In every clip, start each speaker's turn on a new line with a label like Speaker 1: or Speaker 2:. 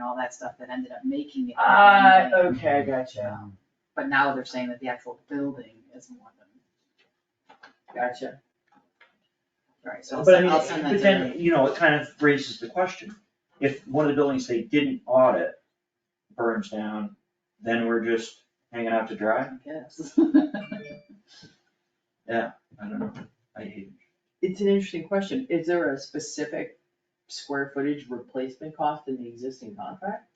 Speaker 1: all that stuff that ended up making it.
Speaker 2: Uh,
Speaker 3: Ah, okay, I gotcha,
Speaker 1: Um, But now they're saying that the actual building is more than,
Speaker 3: gotcha.
Speaker 1: right, so I'll
Speaker 2: But I
Speaker 1: send,
Speaker 2: mean,
Speaker 1: I'll send that to
Speaker 2: but
Speaker 1: them.
Speaker 2: then, you know, it kind of raises the question, if one of the buildings they didn't audit burns down, then we're just hanging out to dry?
Speaker 1: I guess.
Speaker 2: I don't know, I hate
Speaker 3: It's an interesting question, is there a specific square footage replacement cost in the existing contract?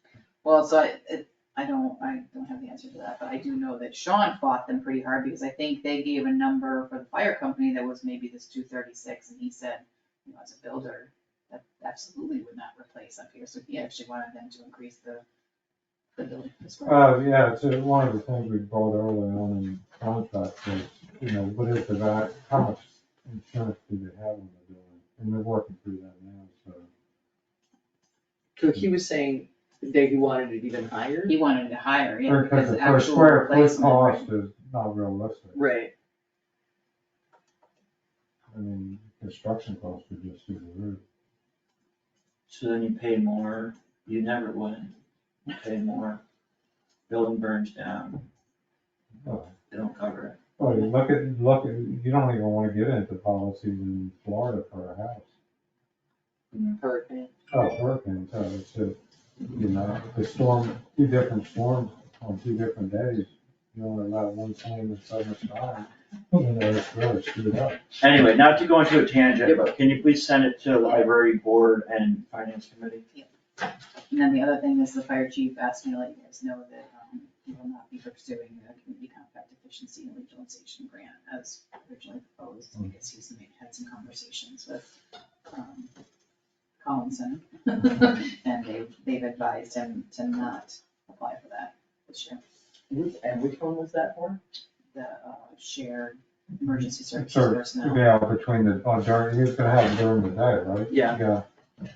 Speaker 1: Well, so I, it, I don't, I don't have the answer to that, but I do know that Sean fought them pretty hard because I think they gave a number for the fire company that was maybe this two thirty-six and he said, you know, as a builder, that absolutely would not replace up here, so he actually wanted them to increase the, the building. per square foot.
Speaker 4: Uh, yeah, so one of the things we brought early on in contract was, you know, what is the value, how much insurance do they have on the building? And they're working through that now, so.
Speaker 3: So he was saying that he wanted it even higher?
Speaker 1: He wanted to hire, yeah, because
Speaker 4: Because the
Speaker 1: the
Speaker 4: per
Speaker 1: actual
Speaker 4: square foot
Speaker 1: replacement. right.
Speaker 4: cost is not realistic.
Speaker 3: Right,
Speaker 4: I mean, construction costs are just through the roof.
Speaker 2: So then you pay more, you never win, you pay more, building burns down,
Speaker 4: Oh,
Speaker 2: they don't cover it.
Speaker 4: Well, you look at, look at, you don't even wanna get into policies in Florida for a house.
Speaker 3: hurricane,
Speaker 4: Oh, hurricane, so it's just, you know, the storm, two different storms on two different days. You only allow one claim in seven times, you know, it's really screwed up.
Speaker 2: Anyway, not to go into a tangent,
Speaker 3: Yeah,
Speaker 2: but can you please send it to the library board and finance committee?
Speaker 1: And then the other thing is the fire chief asked me to let you guys know that um, he will not be pursuing the community compact efficiency and regionalization grant as originally proposed. I guess he's made- had some conversations with um, Collinson. And they've, they've advised him to not apply for that this year,
Speaker 3: Which- and which one was that for?
Speaker 1: the uh, shared emergency services
Speaker 4: Sure.
Speaker 1: personnel.
Speaker 4: Yeah, between the, oh, during, he was gonna have it during the day, right?
Speaker 3: Yeah.
Speaker 4: Yeah,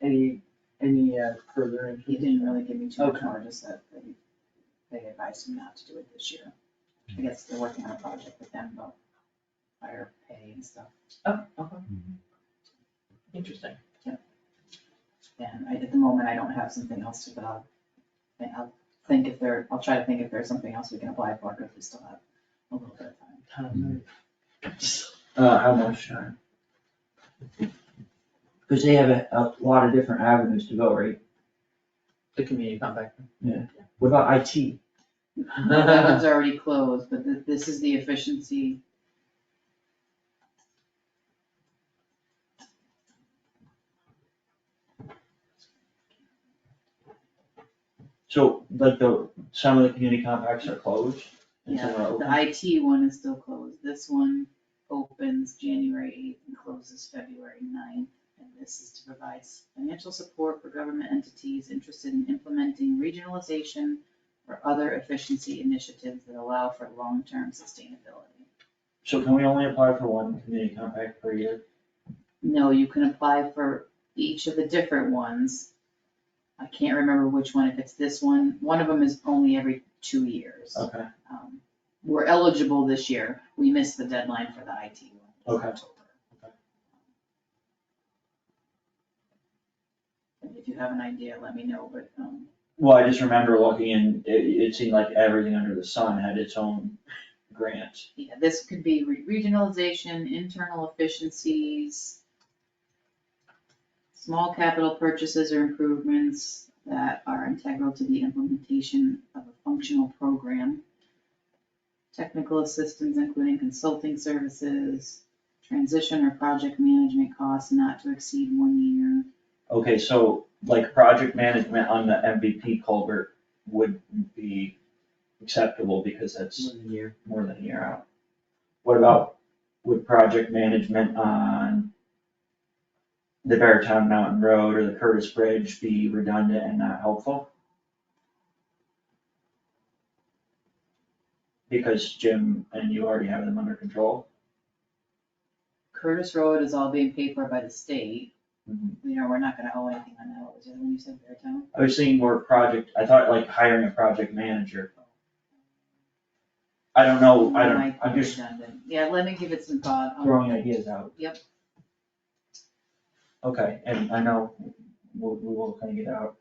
Speaker 3: Any, any uh, further
Speaker 1: He
Speaker 3: information?
Speaker 1: didn't really give me too much
Speaker 3: Okay.
Speaker 1: more, just that they- they advised him not to do it this year. I guess they're working on a project with them about higher pay and stuff.
Speaker 3: Oh, okay. Interesting.
Speaker 1: And I, at the moment, I don't have something else to, but I'll, and I'll think if there, I'll try to think if there's something else we can apply for, if we still have a little bit of time.
Speaker 4: Mhm.
Speaker 2: Uh, how much time? Cause they have a, a lot of different avenues to go, right?
Speaker 3: The community compact.
Speaker 2: What about IT?
Speaker 1: That one's already closed, but th- this is the efficiency.
Speaker 2: So, like the, some of the community compacts are closed and some are
Speaker 1: Yeah,
Speaker 2: open.
Speaker 1: the IT one is still closed. This one opens January eighth and closes February 9th. And this is to provide s- financial support for government entities interested in implementing regionalization or other efficiency initiatives that allow for long-term sustainability.
Speaker 2: So can we only apply for one community compact per year?
Speaker 1: No, you can apply for each of the different ones. I can't remember which one, if it's this one, one of them is only every two years.
Speaker 2: Okay,
Speaker 1: Um, We're eligible this year, we missed the deadline for the IT one.
Speaker 2: Okay.
Speaker 1: Okay. If you have an idea, let me know, but, um,
Speaker 2: well, I just remember looking and it, it seemed like everything under the sun had its own grants.
Speaker 1: yeah, this could be re- regionalization, internal efficiencies, small capital purchases or improvements that are integral to the implementation of a functional program, technical assistance including consulting services, transition or project management costs not to exceed one year.
Speaker 2: Okay, so like project management on the MVP culvert would be acceptable because that's more than a year out. What about with project management on the Beartown Mountain Road or the Curtis Bridge be redundant and not helpful? Because Jim and you already have them under control.
Speaker 1: Curtis Road is all being paid for by the state.
Speaker 2: Mhm.
Speaker 1: You know, we're not gonna owe anything on that. What was the other one you said, Beartown?
Speaker 2: I was thinking more project, I thought like hiring a project manager. I don't know, I
Speaker 1: Might
Speaker 2: don't,
Speaker 1: be
Speaker 2: I'm just
Speaker 1: redundant. Oh Yeah, let me give it some thought. I'll-
Speaker 2: throwing ideas out.
Speaker 1: Yep.
Speaker 2: Okay, and I know we'll, we will kind of get out